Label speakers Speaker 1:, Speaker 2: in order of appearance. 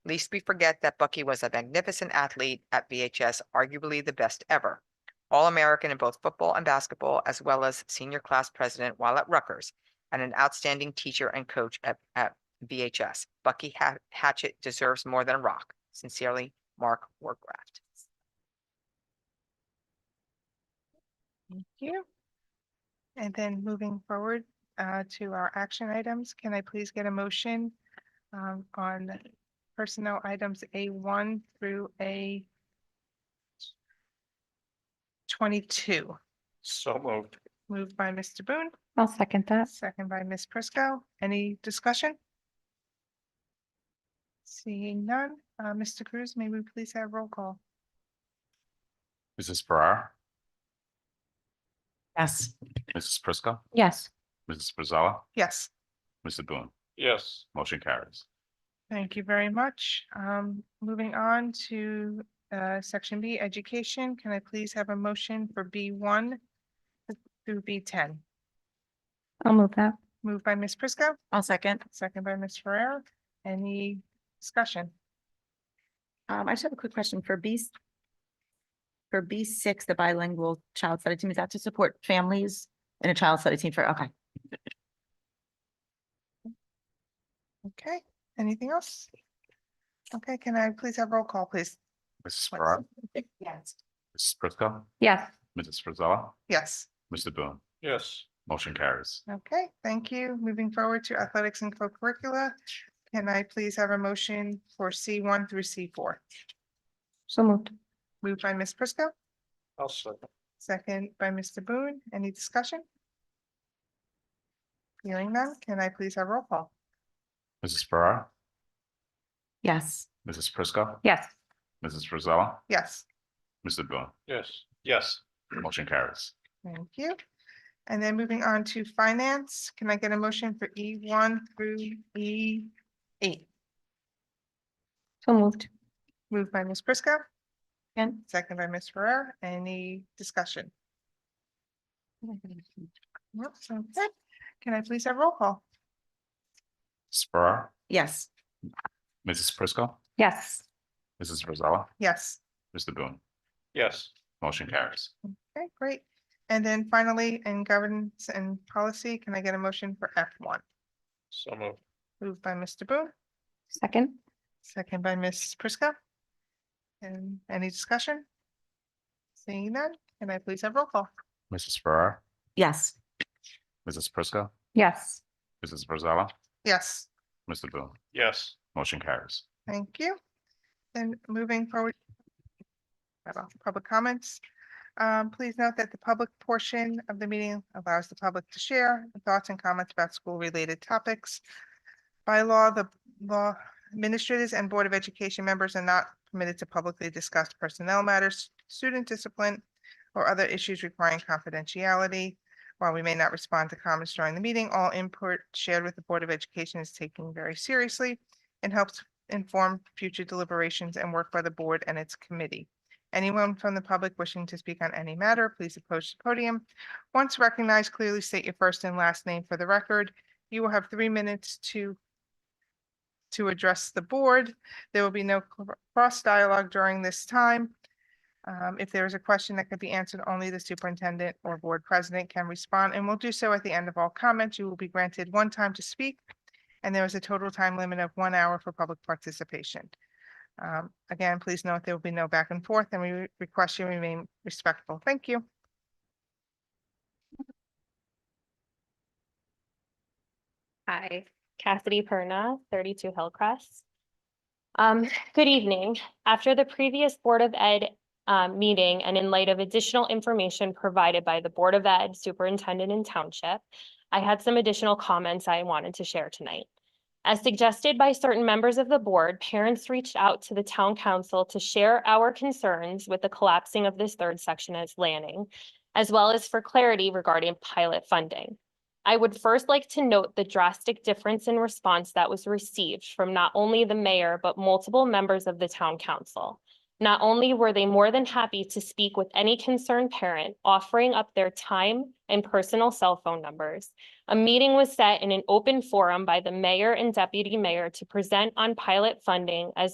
Speaker 1: Least we forget that Bucky was a magnificent athlete at VHS, arguably the best ever. All-American in both football and basketball, as well as senior class president while at Rutgers, and an outstanding teacher and coach at, at VHS. Bucky Ha- Hatchet deserves more than a rock. Sincerely, Mark Warcraft.
Speaker 2: Thank you. And then moving forward uh, to our action items, can I please get a motion um, on personnel items A1 through A 22?
Speaker 3: So moved.
Speaker 2: Moved by Mr. Boone,
Speaker 4: I'll second that.
Speaker 2: second by Ms. Prisco. Any discussion? Seeing none, Uh, Mr. Cruz, may we please have roll call?
Speaker 5: Mrs. Farrar,
Speaker 6: yes,
Speaker 5: Mrs. Prisco,
Speaker 4: Yes,
Speaker 5: Mrs. Frizella,
Speaker 2: Yes.
Speaker 5: Mr. Boone,
Speaker 3: Yes,
Speaker 5: motion carries.
Speaker 2: Thank you very much. Um, moving on to, uh, section B, education. Can I please have a motion for B one through B ten?
Speaker 4: I'll move that.
Speaker 2: Moved by Ms. Prisco,
Speaker 6: I'll second.
Speaker 2: second by Ms. Ferrer. Any discussion?
Speaker 6: Um, I just have a quick question for B. For B six, the bilingual child study team, is that to support families in a child study team for, okay.
Speaker 2: Okay, anything else? Okay, can I please have roll call, please?
Speaker 5: Mrs. Farrar,
Speaker 6: Yes.
Speaker 5: Mrs. Prisco,
Speaker 4: Yes,
Speaker 5: Mrs. Frizella,
Speaker 2: Yes,
Speaker 5: Mr. Boone,
Speaker 3: yes,
Speaker 5: motion carries.
Speaker 2: okay, thank you. Moving forward to athletics and co-curricula. Can I please have a motion for C one through C four?
Speaker 4: so moved.
Speaker 2: Moved by Ms. Prisco,
Speaker 3: I'll second.
Speaker 2: Second by Mr. Boone. Any discussion? Hearing none, can I please have roll call?
Speaker 5: Mrs. Farrar,
Speaker 6: Yes.
Speaker 5: Mrs. Prisco,
Speaker 4: Yes,
Speaker 5: Mrs. Frizella,
Speaker 2: Yes,
Speaker 5: Mr. Boone,
Speaker 3: Yes, yes,
Speaker 5: motion carries.
Speaker 2: thank you. And then moving on to finance, can I get a motion for E one through E eight?
Speaker 4: so moved.
Speaker 2: Moved by Ms. Prisco,
Speaker 6: And
Speaker 2: second by Ms. Ferrer. Any discussion? Nope, sounds good. Can I please have roll call?
Speaker 5: Mrs. Farrar,
Speaker 6: yes,
Speaker 5: Mrs. Prisco,
Speaker 4: Yes,
Speaker 5: Mrs. Frizella,
Speaker 2: Yes,
Speaker 5: Mr. Boone,
Speaker 3: yes,
Speaker 5: motion carries.
Speaker 2: okay, great. And then finally, in governance and policy, can I get a motion for F one?
Speaker 3: so moved.
Speaker 2: Moved by Mr. Boone.
Speaker 4: second.
Speaker 2: Second by Ms. Prisco. And any discussion? Seeing none, can I please have roll call?
Speaker 5: Mrs. Farrar,
Speaker 6: yes,
Speaker 5: Mrs. Prisco,
Speaker 4: Yes,
Speaker 5: Mrs. Frizella,
Speaker 2: Yes,
Speaker 5: Mr. Boone,
Speaker 3: Yes,
Speaker 5: motion carries.
Speaker 2: thank you. Then moving forward. cut off Public comments. Um, please note that the public portion of the meeting allows the public to share thoughts and comments about school-related topics. By law, the law administrators and Board of Education members are not permitted to publicly discuss personnel matters, student discipline, or other issues requiring confidentiality. While we may not respond to comments during the meeting, all input shared with the Board of Education is taken very seriously and helps inform future deliberations and work by the board and its committee. Anyone from the public wishing to speak on any matter, please approach the podium. Once recognized, clearly state your first and last name for the record. You will have three minutes to to address the board. There will be no cr- cross dialogue during this time. Um, if there is a question that could be answered, only the superintendent or board president can respond and will do so at the end of all comments. You will be granted one time to speak. And there is a total time limit of one hour for public participation. Um, again, please note there will be no back and forth and we re- request you remain respectful. Thank you.
Speaker 7: Hi, Cassidy Perna, thirty-two Hillcrest. Um, good evening. After the previous Board of Ed um, meeting and in light of additional information provided by the Board of Ed Superintendent and Township, I had some additional comments I wanted to share tonight. As suggested by certain members of the board, parents reached out to the town council to share our concerns with the collapsing of this third section as landing, as well as for clarity regarding pilot funding. I would first like to note the drastic difference in response that was received from not only the mayor, but multiple members of the town council. Not only were they more than happy to speak with any concerned parent, offering up their time and personal cell phone numbers, a meeting was set in an open forum by the mayor and deputy mayor to present on pilot funding as